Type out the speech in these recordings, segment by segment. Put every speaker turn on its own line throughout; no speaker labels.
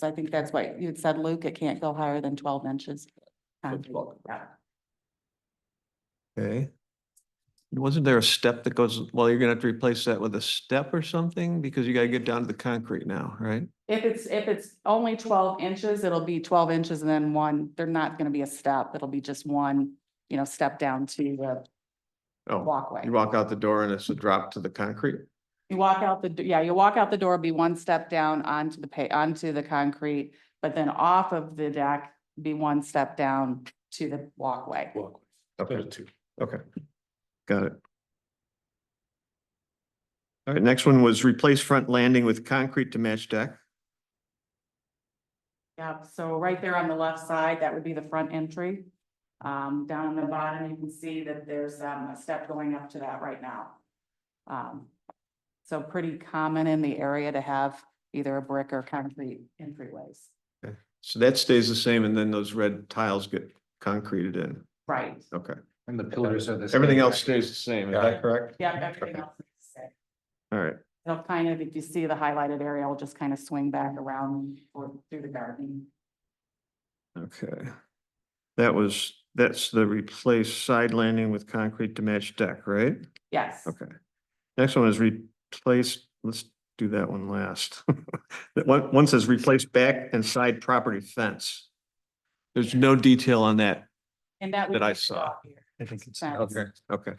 So I think that's what you had said, Luke, it can't go higher than twelve inches. Um, concrete. Yeah.
Okay. Wasn't there a step that goes, well, you're gonna have to replace that with a step or something because you gotta get down to the concrete now, right?
If it's, if it's only twelve inches, it'll be twelve inches and then one, they're not gonna be a step, it'll be just one, you know, step down to the
Oh,
walkway.
you walk out the door and it's a drop to the concrete?
You walk out the, d- yeah, you walk out the door, be one step down onto the pa, onto the concrete, but then off of the deck, be one step down to the walkway.
Walkway.
Okay,
two.
okay. Got it. All right, next one was replace front landing with concrete to match deck.
Yep, so right there on the left side, that would be the front entry. Um, down on the bottom, you can see that there's um, a step going up to that right now. Um, so pretty common in the area to have either a brick or concrete entryways.
So that stays the same and then those red tiles get concreted in.
Right.
Okay,
And the pillars are the. same,
everything else
right?
stays the same, is that correct?
Yeah, everything else is the same.
All right,
It'll kind of, if you see the highlighted area, it'll just kind of swing back around or through the garden.
okay. That was, that's the replace side landing with concrete to match deck, right?
Yes.
Okay. Next one is replace, let's do that one last. That one, one says replace back and side property fence. There's no detail on that.
And that.
That I saw.
I think it's.
Fence.
Okay.
Okay.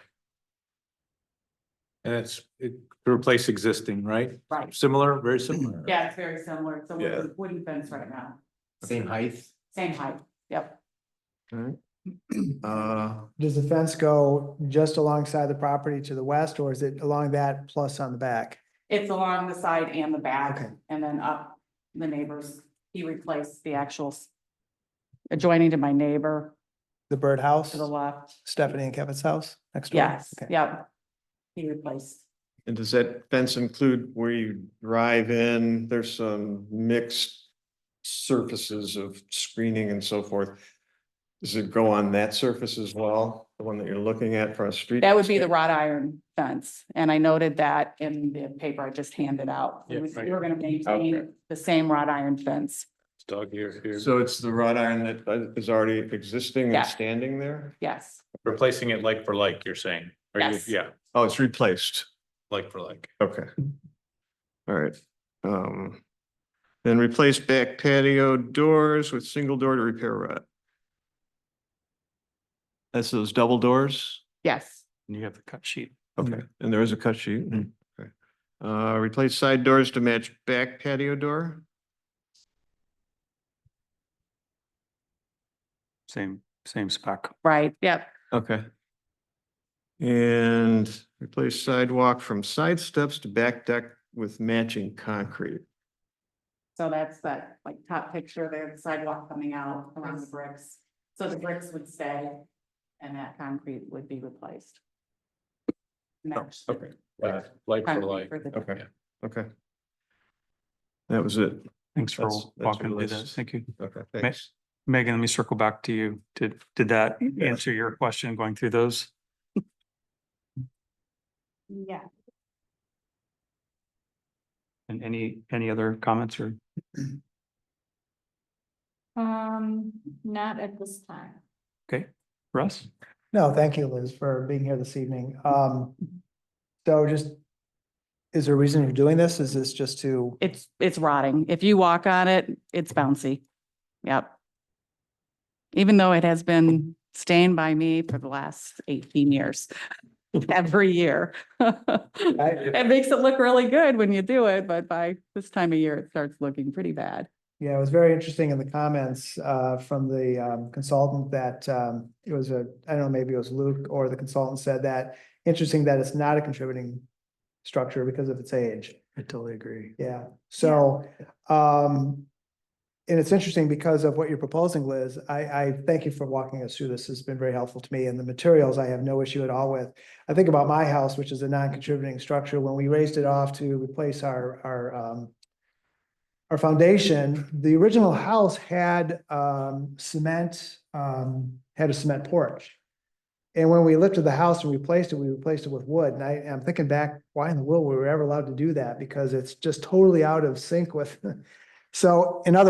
And it's, it, to replace existing, right?
Right.
Similar, very similar.
Yeah, it's very similar. It's a
Yeah.
wooden- wooden fence right now,
Same height?
same height. Yep.
Uh,
Does the fence go just alongside the property to the west or is it along that plus on the back?
It's along the side and the back
Okay.
and then up the neighbors. He replaced the actual s- adjoining to my neighbor
The birdhouse,
to the left.
Stephanie and Kevin's house next door?
Yes,
Okay.
yep. He replaced.
and does that fence include where you drive in? There's some mixed surfaces of screening and so forth. Does it go on that surface as well? The one that you're looking at from a street?
That would be the wrought iron fence. And I noted that in the paper I just handed out. We
Yeah,
was-
right.
we were gonna maintain the same wrought iron fence.
Dog here, here.
So it's the wrought iron that uh, is already existing
Yeah.
and standing there?
Yes,
Replacing it like for like, you're saying? Or you-
Yes.
Yeah,
Oh, it's replaced.
like for like.
Okay. All right. Um, then replace back patio doors with single door to repair rot. That's those double doors?
yes.
And you have the cut sheet.
Okay, and there is a cut sheet. Okay. Uh, replace side doors to match back patio door?
Same, same spec.
Right, yep.
Okay. And replace sidewalk from side steps to back deck with matching concrete.
So that's that like top picture there, the sidewalk coming out around the bricks. So the bricks would stay and that concrete would be replaced. Match the
Oh, Okay. Like like for
concrete
like.
for the-
Okay, okay. That was it.
Thanks for
That's- that's
walking
really
through that.
s-
Thank you.
Okay, thanks.
Megan, let me circle back to you. Did, did that answer your question going through those?
Yeah.
And any, any other comments or?
Um, not at this time.
Okay, Russ?
No, thank you, Liz, for being here this evening. Um, so just, is there a reason you're doing this? Is this just to,
It's, it's rotting. If you walk on it, it's bouncy. Yep. Even though it has been staying by me for the last eighteen years, every year. It makes it look really good when you do it, but by this time of year, it starts looking pretty bad.
yeah, it was very interesting in the comments, uh, from the um, consultant that, um, it was a, I don't know, maybe it was Luke or the consultant said that, interesting that it's not a contributing structure because of its age.
I totally agree.
Yeah, so, um, and it's interesting because of what you're proposing, Liz. I, I thank you for walking us through this. It's been very helpful to me and the materials I have no issue at all with. I think about my house, which is a non-contributing structure. When we raised it off to replace our, our, um, our foundation, the original house had, um, cement, um, had a cement porch. And when we lifted the house and replaced it, we replaced it with wood. And I, I'm thinking back, why in the world were we ever allowed to do that? Because it's just totally out of sync with. So in other